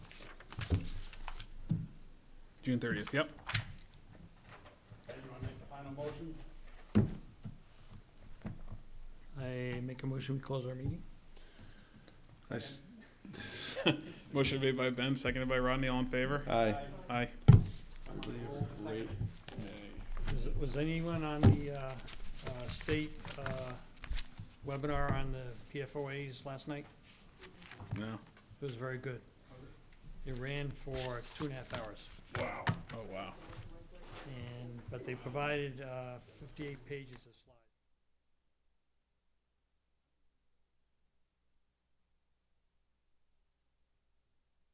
June thirtieth, yep. Anyone make the final motion? I make a motion, we close our meeting. I s- Motion made by Ben, seconded by Rodney, all in favor? Aye. Aye. Great. Was, was anyone on the, uh, uh, state, uh, webinar on the PFOAs last night? No. It was very good. It ran for two and a half hours, Wow. Oh, wow. and, but they provided, uh, fifty-eight pages of slides.